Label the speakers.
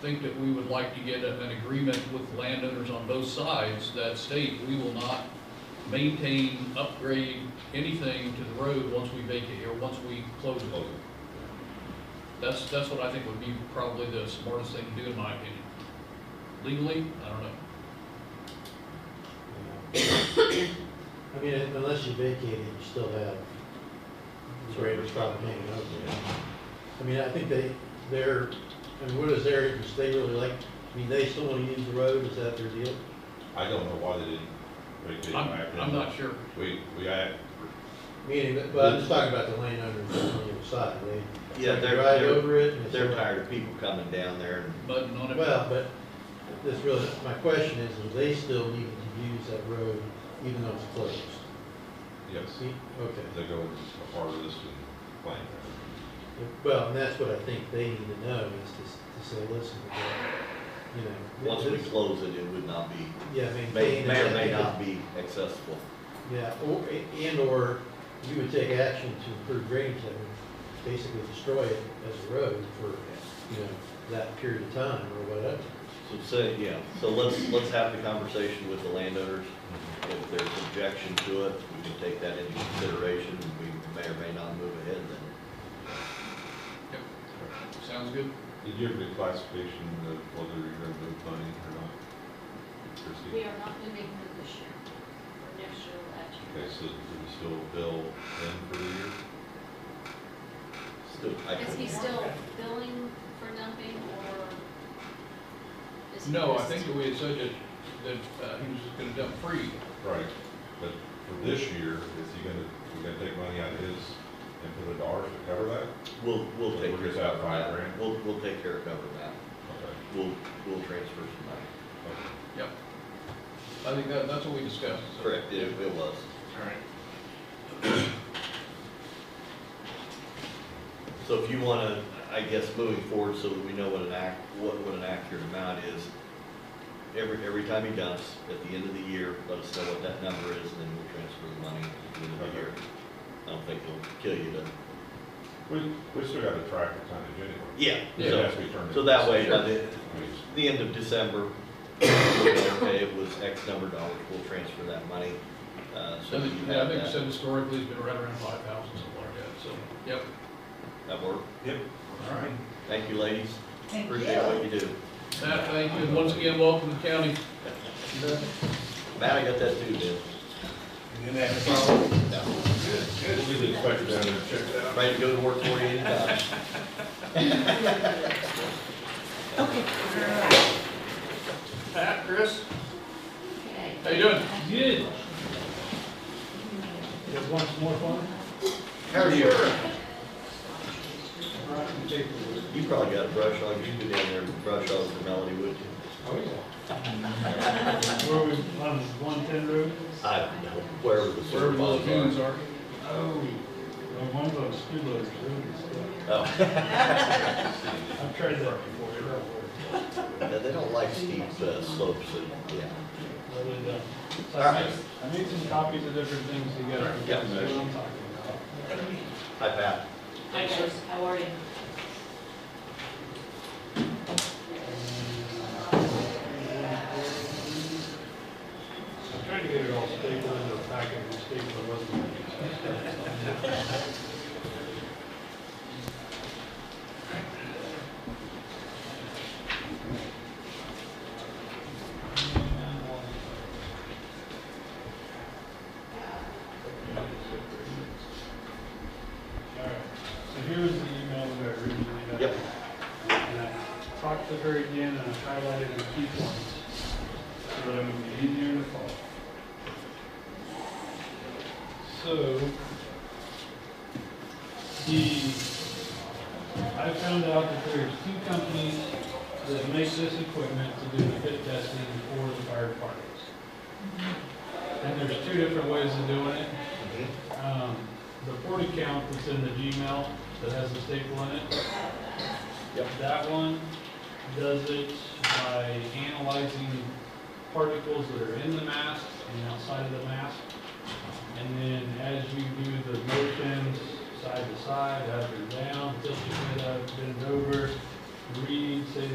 Speaker 1: think that we would like to get a- an agreement with landowners on both sides that state we will not maintain, upgrade anything to the road once we vacate, or once we close it. That's, that's what I think would be probably the smartest thing to do, in my opinion. Legally, I don't know.
Speaker 2: I mean, unless you vacate it, you still have the Raiders problem hanging out there. I mean, I think they, they're, I mean, what is their interest? They really like, I mean, they still want to use the road, is that their deal?
Speaker 3: I don't know why they didn't make it back
Speaker 1: I'm,
Speaker 3: then.
Speaker 1: I'm not sure.
Speaker 3: We, we, I,
Speaker 2: Meaning, but- but I'm just talking about the landowners on the other side, they
Speaker 4: Yeah,
Speaker 2: they
Speaker 4: they're,
Speaker 2: drive
Speaker 4: they're,
Speaker 2: over it and it's.
Speaker 4: they're tired of people coming down there and
Speaker 1: Button on it.
Speaker 2: Well, but this really, my question is, do they still need to use that road even though it's closed?
Speaker 3: yes,
Speaker 2: See, okay.
Speaker 3: they go into the harvest and plant.
Speaker 2: Well, and that's what I think they need to know is to, to say, listen, you know.
Speaker 4: once we
Speaker 2: this-
Speaker 4: close it, it would not be,
Speaker 2: Yeah,
Speaker 4: may,
Speaker 2: maintain.
Speaker 4: may or
Speaker 2: it.
Speaker 4: may not be accessible.
Speaker 2: Yeah, or, and or you would take action to improve drainage that would basically destroy it as a road for, you know, that period of time or whatever.
Speaker 4: So say, yeah, so let's, let's have the conversation with the landowners. If there's objection to it, we can take that into consideration, and we may or may not move ahead then.
Speaker 1: Sounds good.
Speaker 3: Did you have the classification of whether you're gonna move money or not? Christie?
Speaker 5: We are not moving her this year, or next year, or that year.
Speaker 3: Okay, so do we still bill them for the year?
Speaker 4: Still, I
Speaker 5: Is he
Speaker 4: couldn't-
Speaker 5: still billing for dumping, or? is he
Speaker 1: No, I
Speaker 5: just-
Speaker 1: think that we had said that, that uh, he was just gonna dump free.
Speaker 3: Right, but for this year, is he gonna, we gonna take money out of his and put it ours to cover that?
Speaker 4: We'll, we'll take.
Speaker 3: We're just
Speaker 4: care
Speaker 3: out
Speaker 4: of
Speaker 3: five
Speaker 4: that.
Speaker 3: grand?
Speaker 4: We'll, we'll take care of covering that.
Speaker 3: Okay,
Speaker 4: We'll, we'll transfer some money.
Speaker 3: okay.
Speaker 1: Yep. I think that, that's what we discussed. so.
Speaker 4: Correct, it, it was.
Speaker 1: All right.
Speaker 4: So if you want to, I guess, moving forward, so that we know what an act, what, what an accurate amount is, every, every time he dumps, at the end of the year, let us know what that number is, and then we'll transfer the money at the end of the year. I don't think it'll kill you to,
Speaker 3: We, we still gotta track the tonnage anyway.
Speaker 4: yeah,
Speaker 1: Yeah.
Speaker 4: so,
Speaker 3: Yes, we turned it.
Speaker 4: so that way, by the,
Speaker 3: I mean, it's-
Speaker 4: the end of December, we'll know, okay, it was X number of dollars, we'll transfer that money, uh, so
Speaker 1: I
Speaker 4: that
Speaker 1: think,
Speaker 4: you
Speaker 1: yeah, I
Speaker 4: have
Speaker 1: think it
Speaker 4: that,
Speaker 1: said historically it's been right around five thousand, something like that, so, yep.
Speaker 4: that work.
Speaker 1: All right.
Speaker 4: Thank you, ladies,
Speaker 6: Thank
Speaker 4: appreciate what you do.
Speaker 1: Matt, thank you, and once again, welcome to the county.
Speaker 4: Matt, I got that too, Dan.
Speaker 7: You didn't have a problem?
Speaker 4: Yeah.
Speaker 3: We'll get the inspector down there and check that out.
Speaker 4: Ready to go to work for you anytime.
Speaker 1: Pat, Chris,
Speaker 5: Okay.
Speaker 1: how you doing?
Speaker 7: Good.
Speaker 2: Just want some more fun?
Speaker 4: How are you?
Speaker 2: Oh,
Speaker 4: You probably got a brush hog, you'd be down there with brush hog for Melody, would you?
Speaker 2: yeah.
Speaker 7: Where we, on one ten road?
Speaker 4: I don't know, wherever the
Speaker 1: Wherever
Speaker 4: sewer
Speaker 1: the
Speaker 4: ponds
Speaker 1: lagoons
Speaker 4: are.
Speaker 1: are.
Speaker 7: Oh. On one of those two loaders, really.
Speaker 4: Oh,
Speaker 7: I've tried that before, it don't work.
Speaker 4: yeah, Oh. they don't like steep uh, slopes, and, yeah.
Speaker 7: Really uh, don't. So
Speaker 4: All
Speaker 7: I
Speaker 4: right.
Speaker 7: made, I made some copies of different things to get,
Speaker 4: Yeah.
Speaker 7: that's what I'm talking about.
Speaker 4: Hi, Pat.
Speaker 5: Hi guys, how are you?
Speaker 7: I'm trying to get it all stapled into a packet, and stapled wasn't. All right, so here's the email that I originally got.
Speaker 4: Yep.
Speaker 7: And I talked to her again, and I highlighted the key points, so that it would be easier to follow. So, the, I found out that there's two companies that make this equipment to do the fit testing for the fire departments. And there's two different ways of doing it. Um, the port account that's in the Gmail that has the staple in it.
Speaker 4: Yep.
Speaker 7: That one does it by analyzing particles that are in the mask and outside of the mask. And then as you do the motions, side to side, up and down, tilt your head up, bend over, read, say